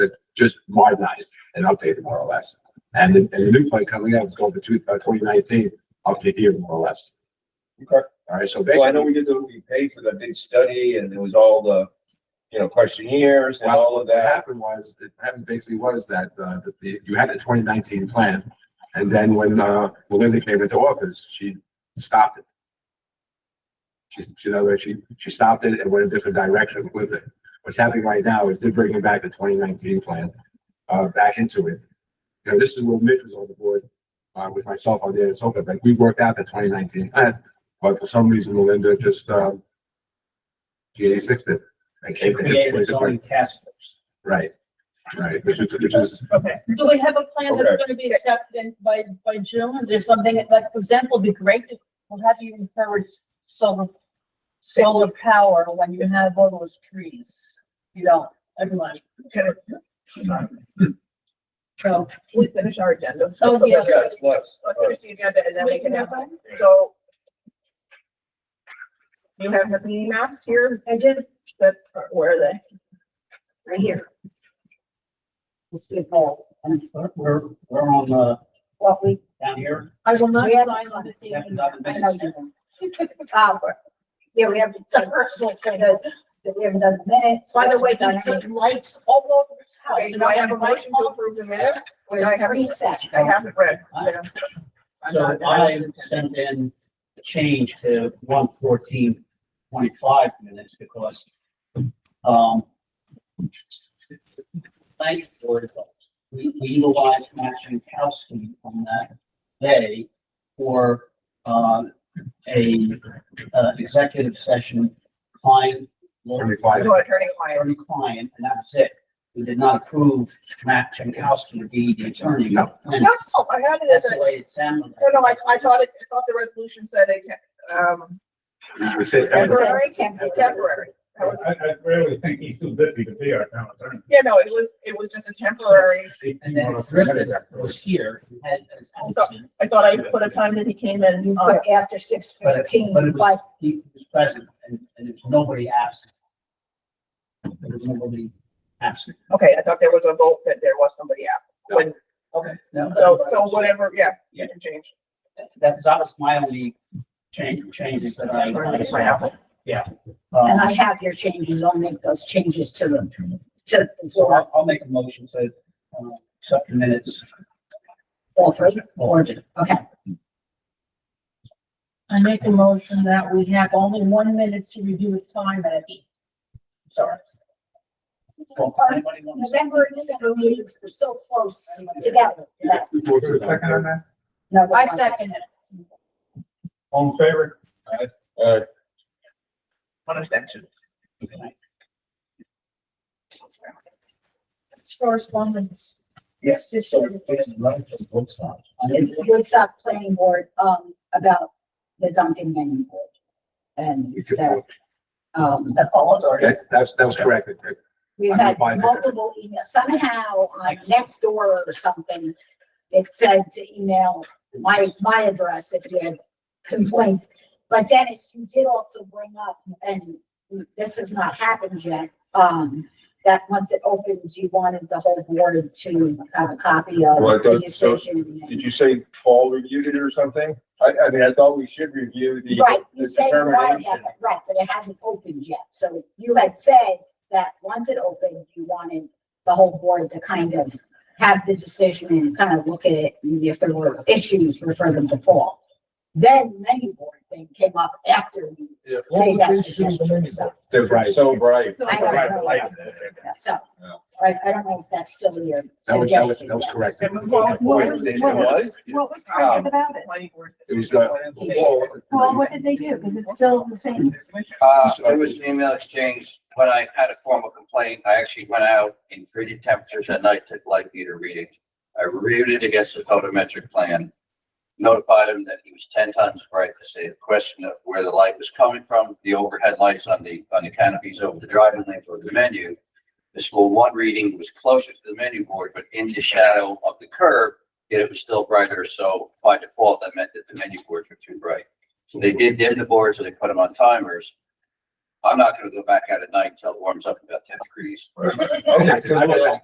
just modernized and updated more or less. And the, and the new plan coming out is going for two, uh, twenty nineteen, up to here more or less. Okay. All right, so Well, I know basically, we did, the we paid for the big study and it was all the, you know, questionnaires and all of what that. happened was, it happened basically was that, uh, that the, you had the twenty nineteen plan. And then when, uh, Melinda came into office, she stopped it. She, she, in other words, she, she stopped it and went a different direction with it. What's happening right now is they're bringing back the twenty nineteen plan, uh, back into it. You know, this is when Mitch was on the board, uh, with myself on there and so forth, like, we worked out the twenty nineteen plan, but for some reason Melinda just, um, G eighty six it. and They came to this created place its of like- own task force. Right, right, which is, which is, Okay. So we have a plan that's Okay. gonna be accepted in- by, by June, is there something, like, for example, it'd be great to, well, how do you encourage solar, solar power when you have all those trees? You don't, everyone, so, we finish our agenda. Oh, Let's- yeah. Yes, plus, Let's uh, finish the agenda and then we can have, so. You have the meeting maps here, I did, that, where are they? Right here. Let's get Paul. We're, we're on, uh, What we. down here. I will not We have- sign on the That's not the I know you business. don't. Um, Uh, Yeah, we have some personal thing that that we haven't done the minutes. By the way, done you put lights all over this Oh, house. Okay, do I have a motion to approve the minutes? There's I haven't- three sets. I haven't read. them. I'm So not- I sent in a change to one fourteen point five minutes because, um, thank you for it. We we utilized matching house key on that day for, uh, a, uh, executive session client. Attorney-client. No, attorney client. Attorney client, and that was it. We did not approve Matt Jankowski to be the attorney. No. And No, I had it as That's a, the way it sounded. no, no, I, I thought it, I thought the resolution said it, um, we said, that was- Temporary. temporary. temporary. I, That was, I really think he's too busy to be our town attorney. yeah, no, it was, it was just a temporary. And then Griffin was here, and had as absent, I thought I put a time that he came in, You uh, put after six Oh, but it, fifteen, but it was, but he was present, and, and there was nobody absent. There was nobody absent. okay, I thought there was a vote that there was somebody out. When, No. so, so whatever, yeah. Yeah. Change. That, that was my only change, changes that I. I saw. Yeah. and Um, I have your changes, I'll make those changes to them, to the so floor, I'll, I'll make a motion to, uh, accept the minutes. all three, or, okay. I make a motion that we have only one minute to review the time at Sorry. Well, anybody want to say? November, and December meetings were so close together. that- Is there a second on that? No, there I wasn't. second it. All in favor? uh, One extension. It's Correspondence. Yes. So, it's a letter from Woodstock. It's Woodstock Planning Board, um, about the Duncan Manning Board. And that, um, the calls are. that, that's, that was correct. We've I'm gonna had buy that. multiple emails, somehow on next door or something, it said to email my, my address if you had complaints. But Dennis, you did also bring up, and this has not happened yet, um, that once it opens, you wanted the whole board to have a copy of Well, it the does- so- decision. Did you say Paul reviewed it or something? I, I mean, I thought we should review the Right, the you said you wanted that, determination. but right, but it hasn't opened yet. So you had said that once it opened, you wanted the whole board to kind of have the decision and kind of look at it, and if there were issues, refer them to Paul. Then many board thing came up after we made that suggestion, so, They're Right. so bright. I don't know. so, Yeah. I, I don't know if that's still your That was, that was, suggestion. that was yes. correct. It was- Wait, was- it what was? What was argued about it? Planning board. It was, uh, Well, what did they do? Because it's still the same. Uh, it was an email exchange. When I had a formal complaint, I actually went out in freezing temperatures at night, took light meter readings. I reviewed it against the photometric plan, notified him that he was ten times bright to see a question of where the light was coming from, the overhead lights on the, on the canopies over the driving lanes or the menu. The school one reading was closer to the menu board, but in the shadow of the curb, yet it was still brighter. So by default, that meant that the menu boards were too bright. So they did dim the boards and they put them on timers. I'm not gonna go back out at night until it warms up about ten degrees. Okay, so,